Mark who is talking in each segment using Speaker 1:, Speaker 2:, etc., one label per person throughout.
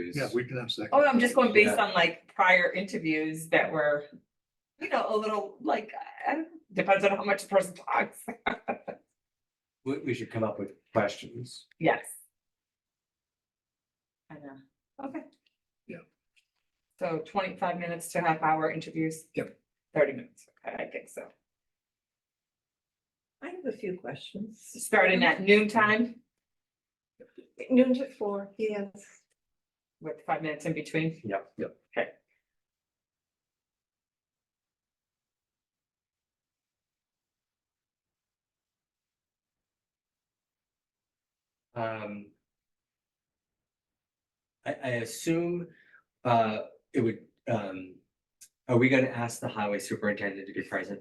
Speaker 1: interviews.
Speaker 2: Yeah, we can have second.
Speaker 3: Oh, I'm just going based
Speaker 1: Yeah.
Speaker 3: on like prior interviews that were, you know, a little like, I don't, depends on how much the person talks.
Speaker 1: We, we should come up with questions.
Speaker 3: Yes. I know, okay.
Speaker 2: Yeah.
Speaker 3: So twenty-five minutes to half hour interviews?
Speaker 2: Yep.
Speaker 3: Thirty minutes, okay, I think so.
Speaker 4: I have a few questions.
Speaker 3: Starting at noon time
Speaker 4: Noon to four, yes.
Speaker 3: with five minutes in between.
Speaker 1: Yep.
Speaker 2: Yep.
Speaker 3: Okay.
Speaker 1: Um. I, I assume, uh, it would, um, are we gonna ask the highway superintendent to be present?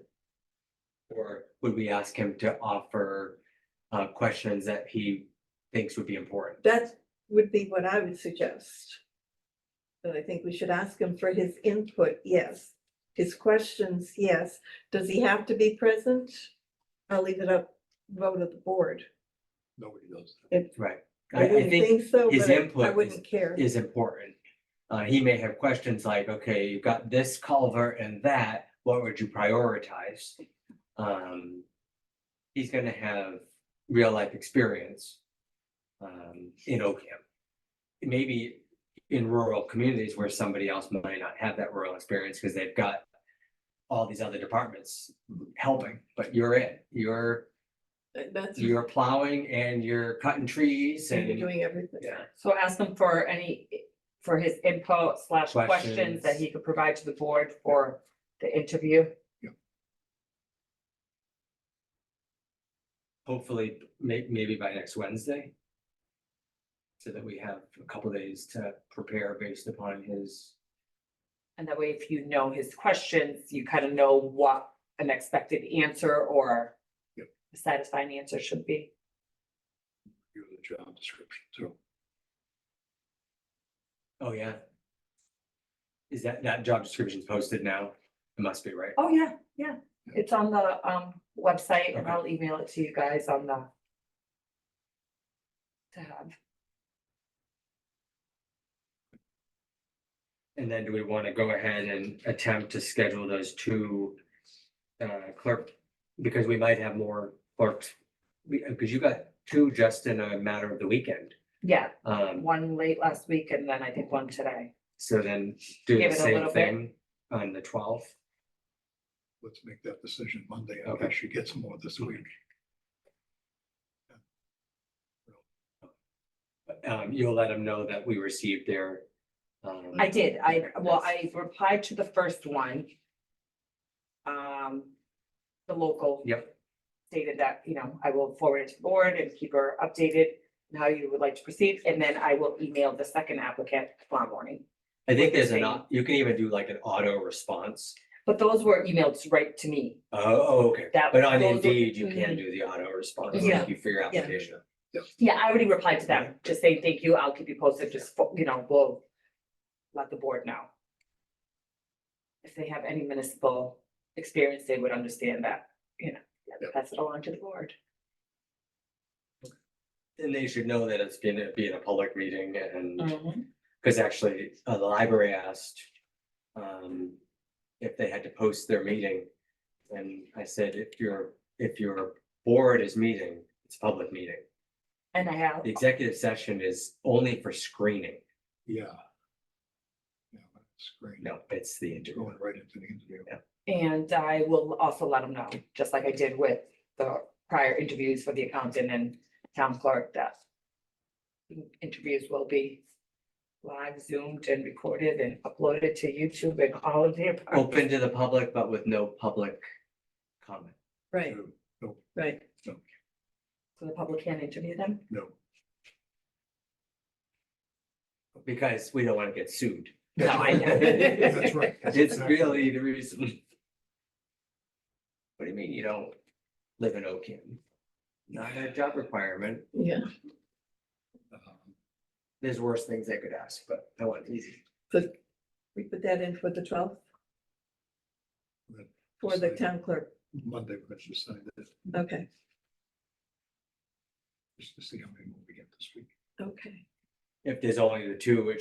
Speaker 1: Or would we ask him to offer, uh, questions that he thinks would be important?
Speaker 4: That would be what I would suggest. And I think we should ask him for his input, yes. His questions, yes. Does he have to be present? I'll leave it up, vote of the board.
Speaker 2: Nobody does.
Speaker 1: Right.
Speaker 4: I
Speaker 1: I
Speaker 4: wouldn't
Speaker 1: think
Speaker 4: think so,
Speaker 1: his
Speaker 4: but I-
Speaker 1: input
Speaker 4: I
Speaker 1: is-
Speaker 4: wouldn't care.
Speaker 1: is important. Uh, he may have questions like, okay, you've got this culvert and that, what would you prioritize? Um, he's gonna have real life experience. Um, in Oakham. Maybe in rural communities where somebody else might not have that rural experience because they've got. All these other departments helping, but you're it, you're,
Speaker 4: That- That's,
Speaker 1: you're plowing and you're cutting trees
Speaker 4: you're
Speaker 1: and,
Speaker 4: doing everything.
Speaker 1: yeah.
Speaker 3: So ask him for any, for his input slash questions that
Speaker 1: Questions.
Speaker 3: he could provide to the board for the interview.
Speaker 1: hopefully, may- maybe by next Wednesday. So that we have a couple days to prepare based upon his,
Speaker 3: And that way, if you know his questions, you kind of know what an expected answer or
Speaker 2: Yep.
Speaker 3: a satisfying answer should be.
Speaker 2: Give the job description, so.
Speaker 1: oh yeah. Is that, that job description's posted now? It must be, right?
Speaker 3: Oh, yeah, yeah. It's on the um website and
Speaker 1: Okay.
Speaker 3: I'll email it to you guys on the tab.
Speaker 1: And then do we want to go ahead and attempt to schedule those two uh, clerk? Because we might have more clerks, because you got two just in a matter of the weekend.
Speaker 3: Yeah,
Speaker 1: Um,
Speaker 3: one late last week and then I think one today.
Speaker 1: so then do
Speaker 3: Give
Speaker 1: the
Speaker 3: it a
Speaker 1: same
Speaker 3: little bit.
Speaker 1: thing on the twelfth.
Speaker 2: let's make that decision Monday. I
Speaker 1: Okay.
Speaker 2: think she gets more this week.
Speaker 1: um, you'll let them know that we received their. um,
Speaker 3: I did, I, well, I replied to the first one. Um, the local.
Speaker 1: Yep.
Speaker 3: Stated that, you know, I will forward it to the board and keep her updated on how you would like to proceed, and then I will email the second applicant tomorrow morning.
Speaker 1: I think there's an, au- you can even do like an auto response.
Speaker 3: But those were emailed right to me.
Speaker 1: Oh, okay.
Speaker 3: That-
Speaker 1: But on
Speaker 3: those are-
Speaker 1: Indeed, you can do the auto response,
Speaker 3: Yeah.
Speaker 1: thank you for your
Speaker 4: Yeah.
Speaker 1: application.
Speaker 3: Yeah, I already replied to them, just saying thank you, I'll keep you posted, just, fo- you know, we'll let the board know. If they have any municipal experience, they would understand that, you know, pass it along to the board.
Speaker 1: And they should know that it's gonna be in a public meeting
Speaker 3: Mm.
Speaker 1: and, because actually, uh, the library asked. Um, if they had to post their meeting. And I said, if your, if your board is meeting, it's a public meeting.
Speaker 3: And I have,
Speaker 1: The executive session is only for screening.
Speaker 2: Yeah. Yeah, that's great.
Speaker 1: No, it's the interview.
Speaker 2: Going right into the interview.
Speaker 3: and I will also let them know, just like I did with the prior interviews for the accountant and town clerk, that interviews will be live zoomed and recorded and uploaded to YouTube and all of the.
Speaker 1: open to the public, but with no public comment.
Speaker 4: Right,
Speaker 2: No,
Speaker 4: right.
Speaker 3: So the public can interview them.
Speaker 2: No.
Speaker 1: Because we don't want to get sued.
Speaker 3: No, I know.
Speaker 2: That's right. That's
Speaker 1: It's
Speaker 2: exactly-
Speaker 1: really the reason. What do you mean you don't live in Oakham? Not a job requirement.
Speaker 4: Yeah,
Speaker 2: um,
Speaker 1: There's worse things they could ask, but that one's easy.
Speaker 4: so we put that in for the twelfth?
Speaker 2: Right.
Speaker 4: For the
Speaker 2: Sorry.
Speaker 4: town clerk,
Speaker 2: Monday, we're going to decide that,
Speaker 4: okay,
Speaker 2: just to see how many more we get this week.
Speaker 4: okay.
Speaker 1: If there's only the two, it